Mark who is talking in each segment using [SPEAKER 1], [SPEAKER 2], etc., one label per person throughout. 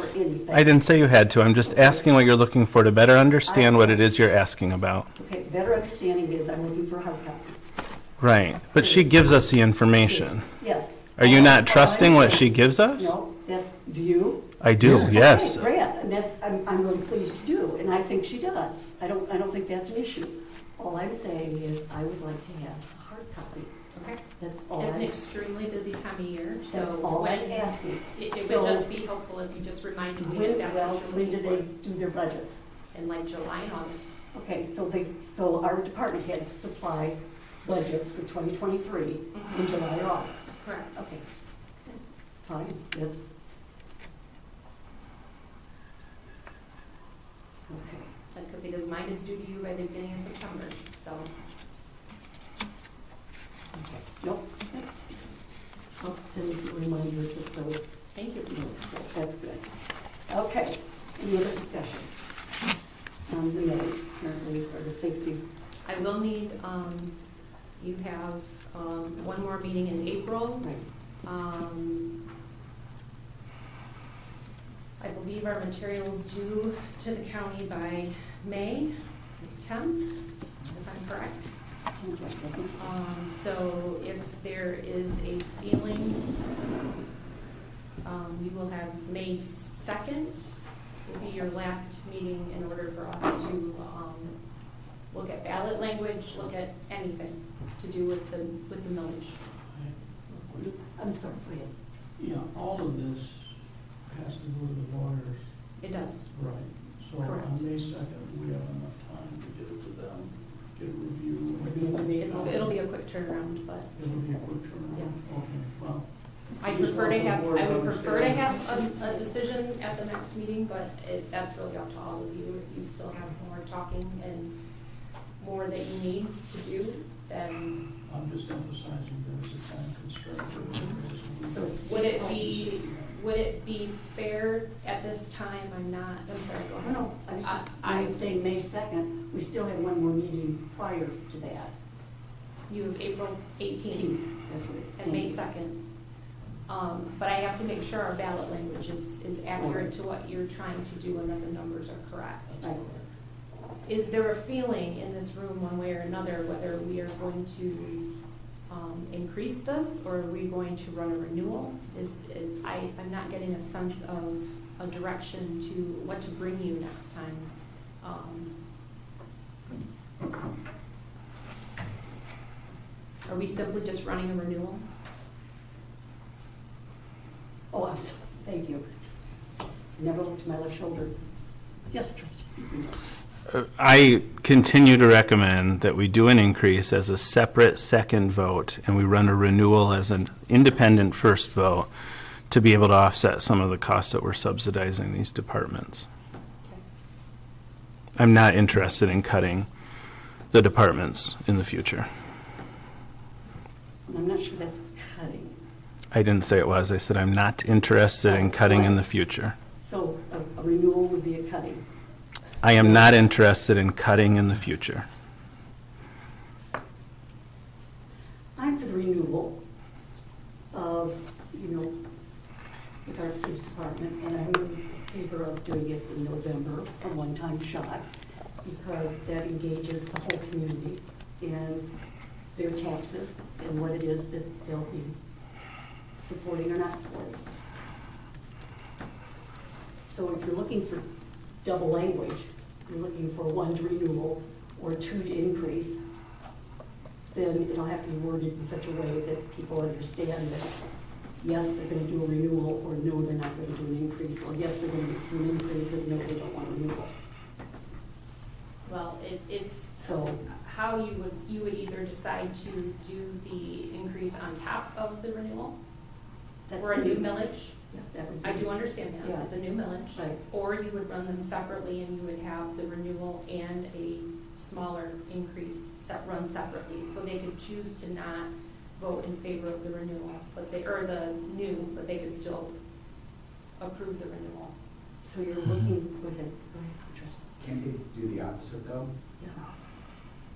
[SPEAKER 1] for anything.
[SPEAKER 2] I didn't say you had to. I'm just asking what you're looking for to better understand what it is you're asking about.
[SPEAKER 1] Okay, better understanding is I'm looking for a hard copy.
[SPEAKER 2] Right. But she gives us the information.
[SPEAKER 1] Yes.
[SPEAKER 2] Are you not
[SPEAKER 1] That's all I'm
[SPEAKER 2] trusting what she
[SPEAKER 1] saying.
[SPEAKER 2] gives us?
[SPEAKER 1] No, that's, do you?
[SPEAKER 2] I do, yes.
[SPEAKER 1] Okay, great, and that's, I'm, I'm really pleased you do, and I think she does. I don't, I don't think that's an issue. All I'm saying is I would like to have a hard copy.
[SPEAKER 3] Okay.
[SPEAKER 1] That's all,
[SPEAKER 3] It's an
[SPEAKER 1] I-
[SPEAKER 3] extremely busy time of year, so
[SPEAKER 1] that's all
[SPEAKER 3] when,
[SPEAKER 1] I'm
[SPEAKER 3] it
[SPEAKER 1] asking.
[SPEAKER 3] it
[SPEAKER 1] So-
[SPEAKER 3] would just be helpful if you just reminded me
[SPEAKER 1] When,
[SPEAKER 3] that that's
[SPEAKER 1] well,
[SPEAKER 3] what you're
[SPEAKER 1] when do
[SPEAKER 3] looking
[SPEAKER 1] they
[SPEAKER 3] for.
[SPEAKER 1] do their budgets?
[SPEAKER 3] In like July and August.
[SPEAKER 1] Okay, so they, so our department heads supply budgets for 2023 in July or August.
[SPEAKER 3] Correct.
[SPEAKER 1] Okay. Fine, that's. Okay,
[SPEAKER 3] That could, because mine is due to you by the beginning of September, so.
[SPEAKER 1] okay, nope, that's, I'll send you a reminder just so it's,
[SPEAKER 3] Thank you.
[SPEAKER 1] no, so that's good. Okay, any other discussions? Um, the minute, apparently, or the safety,
[SPEAKER 3] I will need, um, you have, um, one more meeting in April.
[SPEAKER 1] right,
[SPEAKER 3] Um, I believe our materials due to the county by May tenth, if I'm correct.
[SPEAKER 1] sounds like, I think so.
[SPEAKER 3] Um, so if there is a feeling, um, we will have May second will be your last meeting in order for us to, um, look at ballot language, look at anything to do with the, with the millage.
[SPEAKER 1] I'm sorry, go ahead.
[SPEAKER 4] Yeah, all of this has to go to the lawyers,
[SPEAKER 3] It does.
[SPEAKER 4] right? So on
[SPEAKER 3] Correct.
[SPEAKER 4] May second, we have enough time to get it to them, get a review.
[SPEAKER 1] It'll be-
[SPEAKER 3] It's, it'll be a quick turnaround, but
[SPEAKER 4] It'll be a quick turnaround. Okay, well,
[SPEAKER 3] I prefer to have, I would prefer to have a, a decision at the next meeting, but it, that's really up to all of you. If you still have more talking and more that you need to do, then
[SPEAKER 4] I'm just emphasizing there's a time constraint.
[SPEAKER 3] So would it be- would it be fair at this time, I'm not, I'm sorry, go
[SPEAKER 1] No,
[SPEAKER 3] ahead.
[SPEAKER 1] no, I was just,
[SPEAKER 3] Oh, I-
[SPEAKER 1] I was saying May second, we still have one more meeting prior to that,
[SPEAKER 3] You have April eighteenth
[SPEAKER 1] eighteenth, that's what it's
[SPEAKER 3] and May
[SPEAKER 1] saying.
[SPEAKER 3] second. Um, but I have to make sure our ballot language is, is accurate to what you're trying to do and that the numbers are correct.
[SPEAKER 1] Right.
[SPEAKER 3] Is there a feeling in this room, one way or another, whether we are going to, um, increase this, or are we going to run a renewal? Is, is, I, I'm not getting a sense of a direction to what to bring you next time. Um, Are we simply just running a renewal?
[SPEAKER 1] Oh, I'm so- thank you. Never looked to my left shoulder. Yes, trustee.
[SPEAKER 2] Uh, I continue to recommend that we do an increase as a separate second vote, and we run a renewal as an independent first vote to be able to offset some of the costs that we're subsidizing these departments. I'm not interested in cutting the departments in the future.
[SPEAKER 1] And I'm not sure that's cutting.
[SPEAKER 2] I didn't say it was. I said I'm not interested in cutting in the future.
[SPEAKER 1] So a a renewal would be a cutting.
[SPEAKER 2] I am not interested in cutting in the future.
[SPEAKER 1] I'm for the renewal of, you know, with our police department, and I'm in favor of doing it in November, a one-time shot, because that engages the whole community in their taxes and what it is that they'll be supporting or not supporting. So if you're looking for double language, you're looking for one to renewal or two to increase, then it'll have to be worded in such a way that people understand that, yes, they're gonna do a renewal, or no, they're not gonna do an increase, or yes, they're gonna do an increase, and no, they don't want a renewal.
[SPEAKER 3] Well, it, it's
[SPEAKER 1] So,
[SPEAKER 3] how you would, you would either decide to do the increase on top of the renewal,
[SPEAKER 1] that's.
[SPEAKER 3] or a new millage.
[SPEAKER 1] Yeah, that would be-
[SPEAKER 3] I do understand that,
[SPEAKER 1] Yeah.
[SPEAKER 3] it's a new millage.
[SPEAKER 1] Right,
[SPEAKER 3] Or you would run them separately and you would have the renewal and a smaller increase set, run separately. So they could choose to not vote in favor of the renewal, but they, or the new, but they could still approve the renewal.
[SPEAKER 1] so you're looking, go ahead, go ahead, Trustee.
[SPEAKER 5] Can't they do the opposite though?
[SPEAKER 1] Yeah.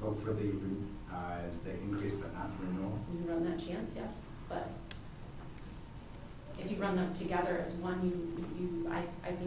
[SPEAKER 5] Vote for the, re- uh, the increase but not renewal?
[SPEAKER 3] You run that chance, yes, but if you run them together as one, you, you, I, I think